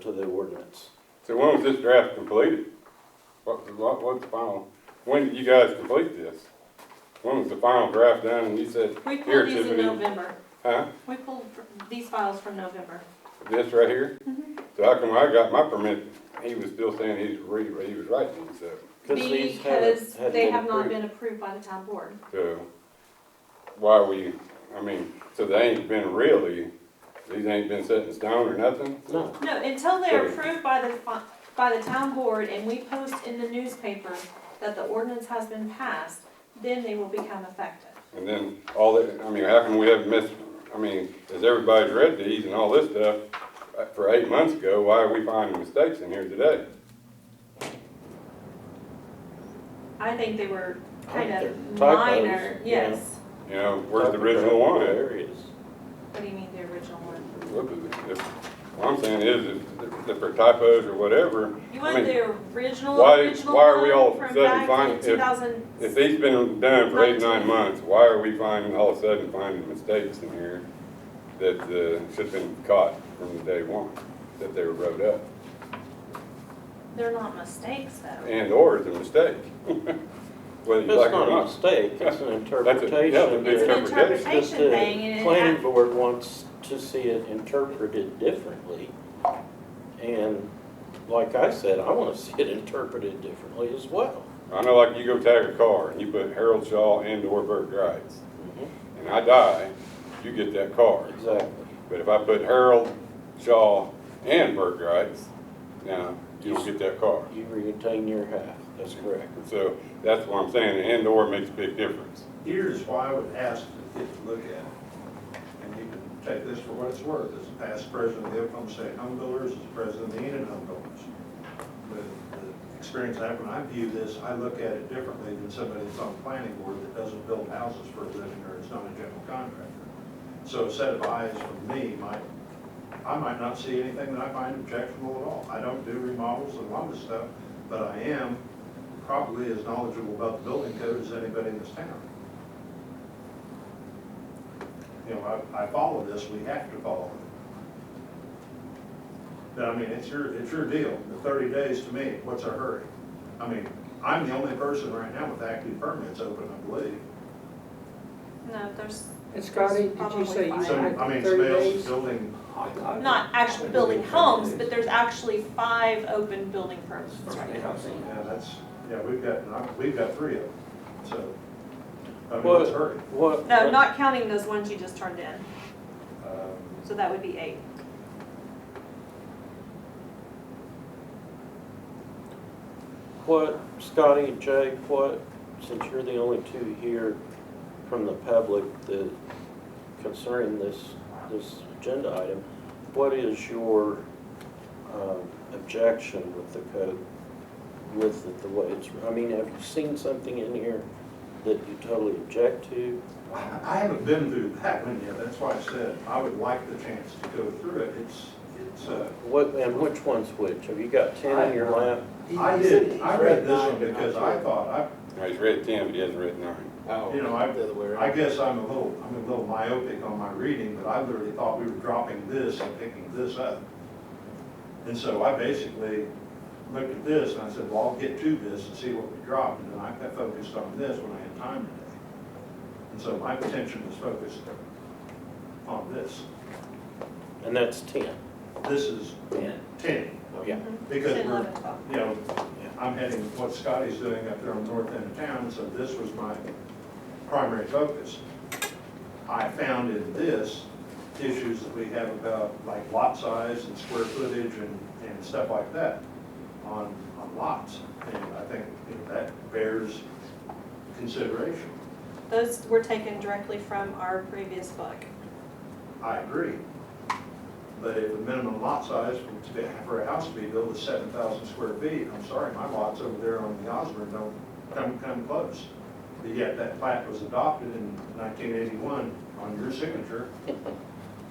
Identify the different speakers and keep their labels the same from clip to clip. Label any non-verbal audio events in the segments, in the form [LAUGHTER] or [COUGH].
Speaker 1: to the ordinance.
Speaker 2: So when was this draft completed? What, what, what's the final, when did you guys complete this? When was the final draft done and you said,
Speaker 3: We
Speaker 2: Here,
Speaker 3: pulled these in
Speaker 2: Tiffany.
Speaker 3: November.
Speaker 2: huh,
Speaker 3: We pulled fr- these files from November.
Speaker 2: this right here?
Speaker 3: Mm-hmm.
Speaker 2: So how come I got my permit, he was still saying he's ready, but he was writing these up,
Speaker 1: these haven't-
Speaker 3: Because
Speaker 1: hadn't
Speaker 3: they have not
Speaker 1: approved.
Speaker 3: been approved by the town board.
Speaker 2: so why we, I mean, so they ain't been really, these ain't been set in stone or nothing?
Speaker 1: No.
Speaker 3: No, until they're
Speaker 2: Sure.
Speaker 3: approved by the, fi- by the town board and we post in the newspaper that the ordinance has been passed, then they will become effective.
Speaker 2: And then all that, I mean, how come we haven't missed, I mean, as everybody's read these and all this stuff, uh, for eight months ago, why are we finding mistakes in here today?
Speaker 3: I think they were kind
Speaker 1: they're
Speaker 3: of
Speaker 1: typos,
Speaker 3: minor,
Speaker 1: yeah.
Speaker 3: yes.
Speaker 2: You know, where's the original one at?
Speaker 1: Areas.
Speaker 3: What do you mean the original one?
Speaker 2: What was it? If- What I'm saying is, if, if for typos or whatever,
Speaker 3: You
Speaker 2: I
Speaker 3: want
Speaker 2: mean,
Speaker 3: the original,
Speaker 2: why-
Speaker 3: original
Speaker 2: why are we all of
Speaker 3: one
Speaker 2: a
Speaker 3: from
Speaker 2: sudden
Speaker 3: back
Speaker 2: finding-
Speaker 3: in
Speaker 2: if-
Speaker 3: two thousand?
Speaker 2: if these been done for eight, nine months, why are we finding, all of a sudden finding mistakes in here that, uh, should've been caught from the day one, that they were wrote up?
Speaker 3: They're not mistakes though.
Speaker 2: And or is a mistake, [LAUGHS] whether you
Speaker 1: It's
Speaker 2: like it or
Speaker 1: not a
Speaker 2: not.
Speaker 1: mistake,
Speaker 2: [LAUGHS]
Speaker 1: it's an
Speaker 2: a-
Speaker 1: interpretation.
Speaker 2: yeah, the
Speaker 3: It's
Speaker 1: that-
Speaker 3: an
Speaker 2: interpretation.
Speaker 1: Just
Speaker 3: interpretation
Speaker 1: the
Speaker 3: thing and it
Speaker 1: planning
Speaker 3: hap-
Speaker 1: board wants to see it interpreted differently. And like I said, I want to see it interpreted differently as well.
Speaker 2: I know like you go tag a car and you put Harold Shaw and or Bert Grice, and I die, you get that car.
Speaker 1: Exactly.
Speaker 2: But if I put Harold Shaw and Bert Grice, now you don't get that car.
Speaker 1: You retain your half, that's correct.
Speaker 2: So that's what I'm saying, and or makes a big difference.
Speaker 4: Here's why I would ask to get to look at it. And you can take this for what it's worth, as a past president of the Oklahoma State Home Builders, as president of the Enid Home Builders. The the experience I have when I view this, I look at it differently than somebody that's on the planning board that doesn't build houses for a living or is not a general contractor. So a set of eyes from me might, I might not see anything that I find objectionable at all. I don't do remodels and a lot of stuff, but I am probably as knowledgeable about the building code as anybody in this town you know, I, I follow this, we have to follow it. But I mean, it's your, it's your deal, the thirty days to me, what's a hurry? I mean, I'm the only person right now with active permits open, I believe.
Speaker 3: No, there's
Speaker 5: And Scotty, did you say you
Speaker 3: Probably
Speaker 4: So, I
Speaker 5: had
Speaker 4: mean,
Speaker 5: thirty
Speaker 4: somebody
Speaker 5: days?
Speaker 4: else building,
Speaker 3: not actually building homes, but there's actually five open building permits right now.
Speaker 4: yeah, that's, yeah, we've got, we've got three of them, so. I mean,
Speaker 1: Well-
Speaker 4: what's a hurry?
Speaker 1: What?
Speaker 3: No, not counting those ones you just turned in,
Speaker 4: Um,
Speaker 3: so that would be eight.
Speaker 1: What, Scotty and Jake, what, since you're the only two here from the public that concerning this, this agenda item, what is your um, objection with the code, with it the way it's, I mean, have you seen something in here that you totally object to?
Speaker 4: I I haven't been through that one yet, that's why I said I would like the chance to go through it, it's, it's, uh,
Speaker 1: What, and which one's which? Have you got ten in your lap?
Speaker 4: I did, I read this one because I thought, I,
Speaker 2: Now, he's read ten, but he hasn't read nine.
Speaker 4: You know, I-
Speaker 6: Oh. The other way
Speaker 4: I
Speaker 6: around.
Speaker 4: guess I'm a little, I'm a little myopic on my reading, but I literally thought we were dropping this and picking this up. And so I basically looked at this and I said, well, I'll get to this and see what we dropped, and then I got focused on this when I had time today. And so my attention was focused on this.
Speaker 1: And that's ten.
Speaker 4: This is
Speaker 6: Ten.
Speaker 4: ten,
Speaker 1: Yeah.
Speaker 4: because
Speaker 3: Ten,
Speaker 4: we're,
Speaker 3: eleven, twelve.
Speaker 4: you know, I'm heading what Scotty's doing up there on the north end of town, so this was my primary focus. I found in this issues that we have about like lot size and square footage and, and stuff like that on, on lots. And I think you know, that bears consideration.
Speaker 3: Those were taken directly from our previous book.
Speaker 4: I agree. But if the minimum lot size for, to be- for a house to be built is seven thousand square feet, I'm sorry, my lots over there on the Osborne don't come, come close. But yet that plat was adopted in nineteen eighty-one on your signature,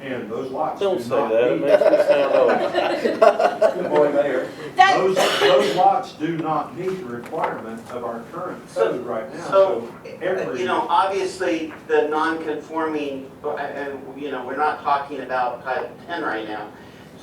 Speaker 4: and those lots do not
Speaker 1: Don't
Speaker 4: meet.
Speaker 1: say that, it makes me sound old.
Speaker 4: [LAUGHS] Good morning, Mayor.
Speaker 3: That-
Speaker 4: Those, those lots do not meet the requirement of our current code right now,
Speaker 6: So,
Speaker 4: so every.
Speaker 6: you know, obviously, the non-conforming, and, you know, we're not talking about Title 10 right now.